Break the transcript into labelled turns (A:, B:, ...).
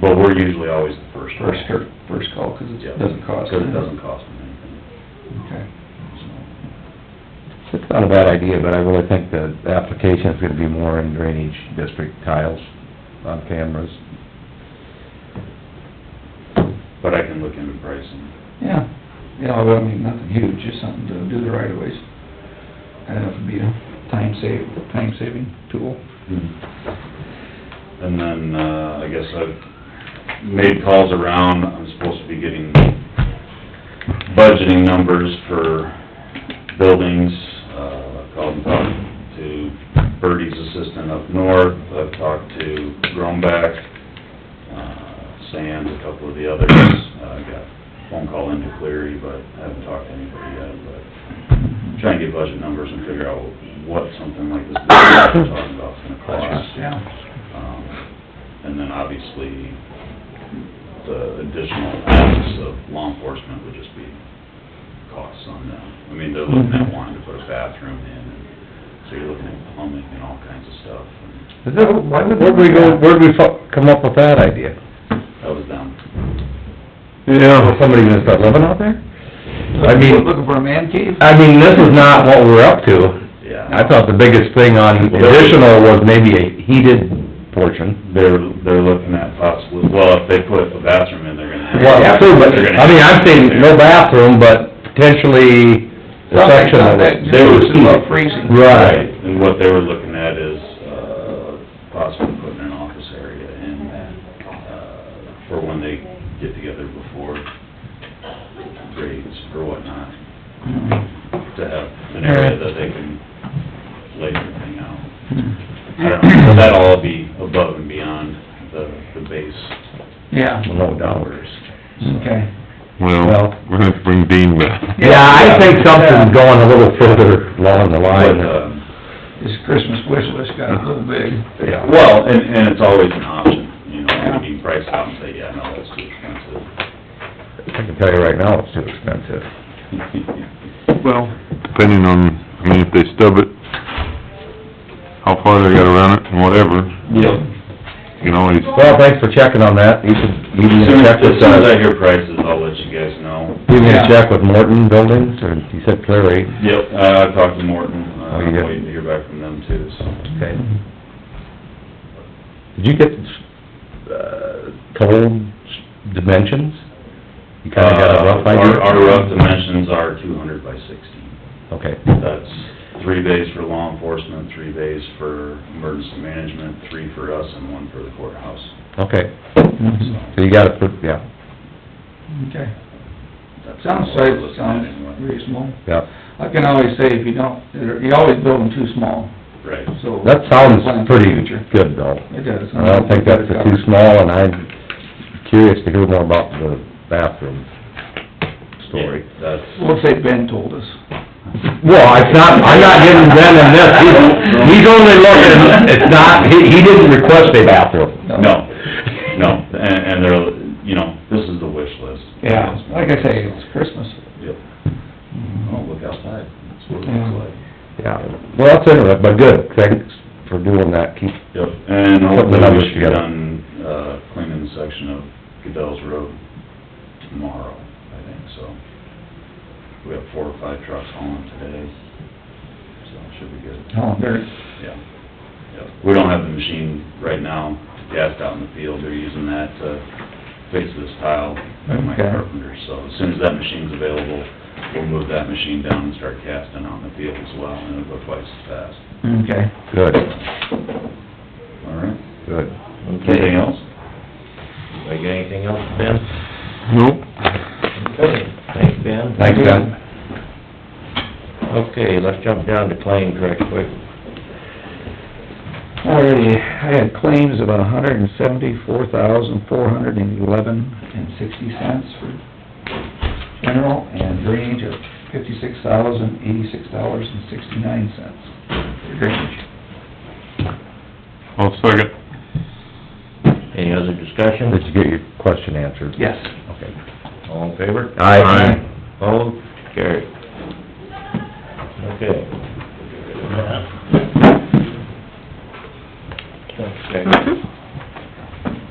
A: But we're usually always the first. one.
B: First, cur- first call, because
A: Yeah.
B: it doesn't cost.
A: Because it doesn't cost them anything.
B: Okay.
C: It's not a bad idea, but I really think the application is gonna be more in drainage district tiles on cameras.
A: But I can look into pricing.
B: Yeah, yeah, well, I mean, nothing huge, just something to do the right of ways. I don't know if it'd be a time save, time saving tool.
A: And then, uh, I guess I've made calls around, I'm supposed to be getting budgeting numbers for buildings. Uh, I've called and talked to Bertie's assistant up north, I've talked to Grumback, uh, Sands, a couple of the others. Uh, I got a phone call into Cleary, but I haven't talked to anybody yet, but trying to get budget numbers and figure out what something like this building we're talking about is gonna cost.
B: Yeah.
A: Um, And then obviously, the additional costs of law enforcement would just be costs on them. I mean, they're looking at wanting to put a bathroom in, and so you're looking at plumbing and all kinds of stuff. and
C: Is that, why would? Where'd we go, where'd we fo- come up with that idea?
A: That was them.
C: Yeah. Somebody gonna start living out there? I mean-
B: Looking for a man cave?
C: I mean, this is not what we're up to. I
A: Yeah.
C: thought the biggest thing on additional was maybe a heated portion.
A: They're, they're looking at possibly, well, if they put a bathroom in, they're gonna.
C: Well, too, but,
A: they're gonna
C: I mean, I'm saying no
A: have-
C: bathroom, but potentially the section of it.
B: Something like that, just about freezing.
C: Right.
A: And what they were looking at is, uh, possibly putting an office area in that, uh, for when they get together before grades or whatnot, to have an area that they can lay everything out.
B: Hmm.
A: I don't know, but that'll all be above and beyond the, the base
B: Yeah,
C: No doubt.
A: numbers.
B: okay.
C: Well-
D: Well, we're gonna have to bring Dean back.
C: Yeah, I think something's going a little further along the
A: But,
C: line.
A: uh,
B: This Christmas wish list got a little big.
C: Yeah.
A: Well, and, and it's always an option, you know, you can price it out and say, yeah, no, that's too expensive.
C: I can tell you right now, it's too expensive.
D: Well... Depending on, I mean, if they stub it, how far they gotta run it and whatever,
A: Yep.
D: you can always,
C: Well, thanks for checking on that. You can, you
A: As
C: can
A: soon as,
C: check
A: as
C: with,
A: soon as I
C: uh,
A: hear prices, I'll let you guys know.
C: you
B: Yeah.
C: can check with Morton Buildings, or you said Clary.
A: Yep. Uh, I've talked to Morton, uh,
C: Oh,
A: I'm
C: you got-
A: waiting to hear back from them too, so.
C: Okay. Did you get, uh, total dimensions? You kinda got a rough
A: Uh,
C: idea?
A: Our, our rough dimensions are two hundred by sixteen.
C: Okay.
A: That's three bays for law enforcement, three bays for emergency management, three for us, and one for the courthouse.
C: Okay,
B: Mhm.
C: so you got it, for- yeah,
B: Okay.
A: That's
B: Sounds,
A: what we're looking at
B: sounds
A: anyway.
B: reasonable.
C: yeah.
B: I can always say if you don't, you always build them too small,
A: Right.
B: so.
C: That sounds
B: Plan for the
C: pretty
B: future.
C: good though.
B: It does.
C: I don't think that's too small and I'm curious to hear more about the bathroom story.
A: Yeah, That's.
B: We'll say Ben told us.
C: Well, it's not, I'm not giving Ben in this, he's, he's only looking, it's not, he, he didn't request a bathroom.
A: No, no, and, and they're, you know, this is the wish list.
B: Yeah, like I say, it's Christmas.
A: Yep. Oh, look outside, that's what it
B: Yeah.
A: looks like.
C: Yeah, well, that's interesting, but good, thanks for doing that, keep,
A: Yep, and
C: Put the
A: hopefully
C: numbers
A: we should be
C: together.
A: done, uh, cleaning the section of Goodell's Road tomorrow, I think, so. We have four or five trucks hauling today, so it should be good.
B: Oh, there,
A: Yeah, yeah. We don't have the machine right now, gassed out in the field, they're using that to fix this tile by Mike
B: Okay.
A: Carpenter. So as soon as that machine's available, we'll move that machine down and start casting out in the field as well, and it'll go twice as fast.
B: okay.
C: good,
A: All right?
C: good.
A: Anything else?
E: I got anything else, Ben?
D: nope.
E: Okay, thanks, Ben.
C: Thanks, Ben.
E: Okay, let's jump down to claims right quick.
B: Alrighty, I had claims of a hundred and seventy-four thousand, four hundred and eleven and sixty cents for general and range of fifty-six thousand, eighty-six dollars and sixty-nine cents for drainage.
D: I'll second.
E: Any other
C: Did
E: discussion?
C: you get your question answered?
B: Yes.
C: Okay.
E: All in favor?
C: Aye.
E: Opposed? Carried. Okay.